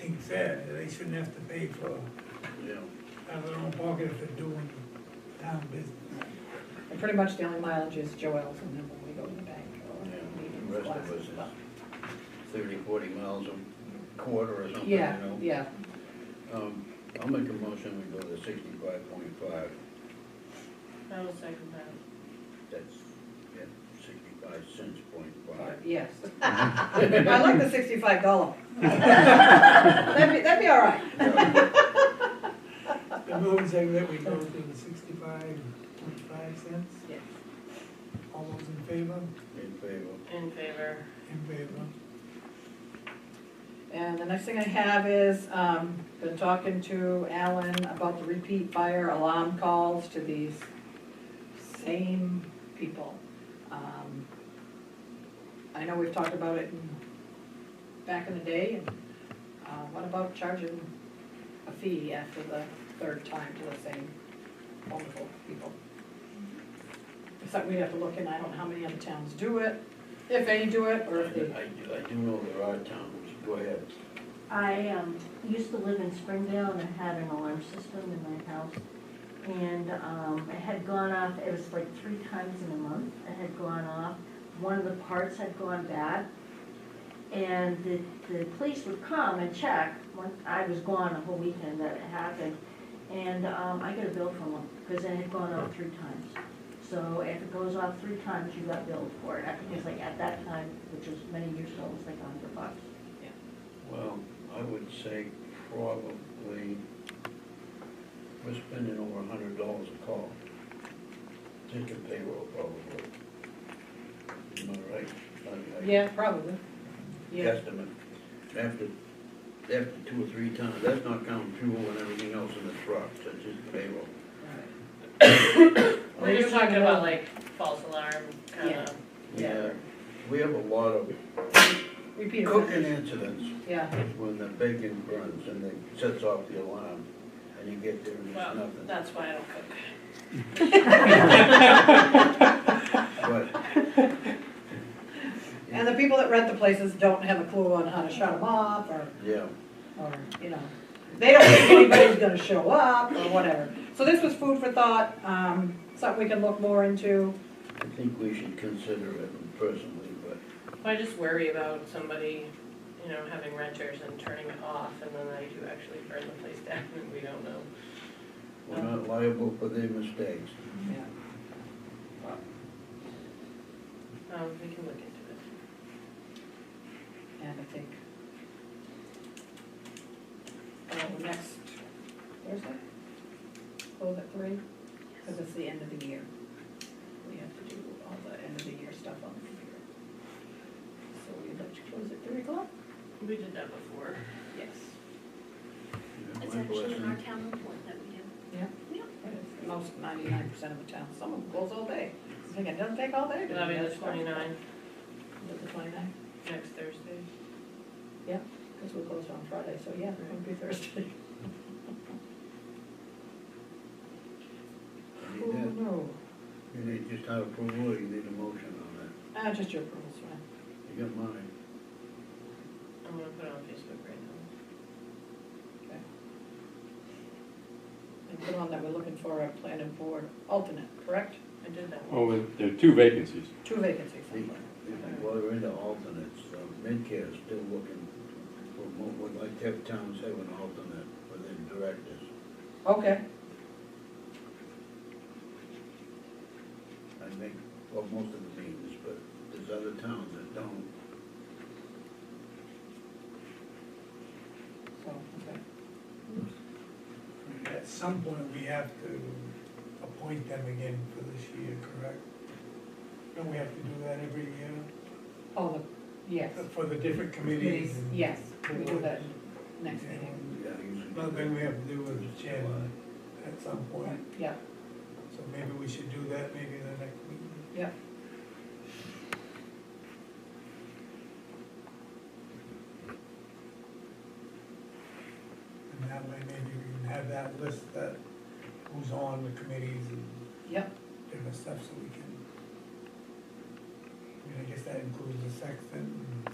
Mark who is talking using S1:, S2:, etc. S1: being said, that they shouldn't have to pay for,
S2: Yeah.
S1: out of their own pocket if they're doing town business.
S3: And pretty much the only mileage is Joel's and then when we go to the bank or
S2: Yeah, the
S3: meetings,
S2: rest of us
S3: classes,
S2: is-
S3: but,
S2: Thirty, forty miles a quarter or something, you
S3: yeah,
S2: know?
S3: yeah.
S2: Um, I'll make a motion, we go to sixty-five point five,
S4: I will second that.
S2: that's, yeah, sixty-five cents point
S3: Or-
S2: five.
S3: Yes. I like the sixty-five dollar. That'd be, that'd be all right.
S2: Yeah,
S1: The moving saying that we go to the sixty-five, twenty-five cents,
S3: Yes.
S1: all those in favor,
S2: In favor,
S4: In favor.
S1: in favor.
S3: And the next thing I have is, um, been talking to Alan about the repeat fire alarm calls to these same people. Um, I know we've talked about it in, back in the day, and, uh, what about charging a fee after the third time to the same multiple people? It's something we'd have to look in, I don't know how many other towns do it, if any do it, or
S2: I
S3: if they.
S2: do, I do know there are towns, go ahead.
S4: I um, used to live in Springdale and I had an alarm system in my house. And um, it had gone off, it was like three times in a month, it had gone off. One of the parts had gone bad. And the, the police would come and check, when I was gone the whole weekend that it happened. And um, I got a bill from them, because it had gone off three times. So if it goes off three times, you got billed for it. I think it was like at that time, which was many years ago, it was like a hundred bucks.
S2: Well, I would say probably, we're spending over a hundred dollars a call. Just a payroll probably. Am I right? I- I-
S3: Yeah, probably. Yeah,
S2: Estimate, after, after two or three times, that's not counting fuel and everything else in the truck, that's just payroll.
S5: We're just talking about like false alarm kind
S3: Yeah.
S5: of.
S3: Yeah.
S2: We have a lot of
S3: repeat
S2: cooking
S3: offenders,
S2: incidents
S3: yeah.
S2: when the bacon burns and it sets off the alarm, and you get there and there's
S5: Well,
S2: nothing.
S5: that's why I don't cook.
S2: But,
S3: And the people that rent the places don't have a clue on how to shut them off, or,
S2: yeah,
S3: or, you know, they don't think anybody's gonna show up, or whatever. So this was food for thought, um, something we can look more into.
S2: I think we should consider it personally, but
S5: I just worry about somebody, you know, having renters and turning it off and then they do actually burn the place down and we don't know.
S2: we're not liable for their mistakes.
S3: Yeah.
S5: Um, we can look into
S3: And I think. Uh, next Thursday? Close at three, because it's the end of the year. We have to do all the end of the year stuff on the computer. So we'd like to close at three o'clock?
S5: it. We did that before.
S3: Yes.
S2: You know,
S6: It's
S2: my
S6: actually in our
S2: blessing.
S6: town report that we do.
S3: Yeah?
S6: Yeah.
S3: Most ninety-nine percent of the town, some of them close all day. I think it doesn't take all day. to do
S5: That'll be
S3: that
S5: the
S3: stuff.
S5: twenty-nine,
S3: The twenty-nine,
S5: next Thursday.
S3: because we're closed on Friday, so yeah, it would be Thursday.
S2: You
S3: Oh,
S2: need that.
S3: no.
S2: You need just have approval, or you need a motion on that.
S3: Ah, just your approval's fine.
S2: You got mine.
S5: I'm gonna put it on Facebook right now.
S3: And put on that we're looking for a planning board alternate, correct?
S5: I did that one.
S7: Well, Oh, there- there are two vacancies.
S3: Two vacancies.
S2: Hey, Well, we're into alternates, uh, Medicare is still looking, for mo- would like to have towns have an alternate for their directors.
S3: Okay,
S2: I think, well, most of the meetings, but there's other towns that don't.
S3: so, okay.
S1: At some point, we have to appoint them again for this year, correct? Don't we have to do that every year
S3: Oh, the, yes.
S1: for the different committees? and-
S3: Yes, we do that next meeting.
S2: Yeah, usually-
S1: Another thing we have to do is the chair at some
S3: Right,
S1: point,
S3: yeah,
S1: so maybe we should do that maybe the next meeting.
S3: yeah.
S1: And that way, maybe we can have that list that who's on the committees and
S3: Yep.
S1: different stuff so we can. I mean, I guess that includes the sexton and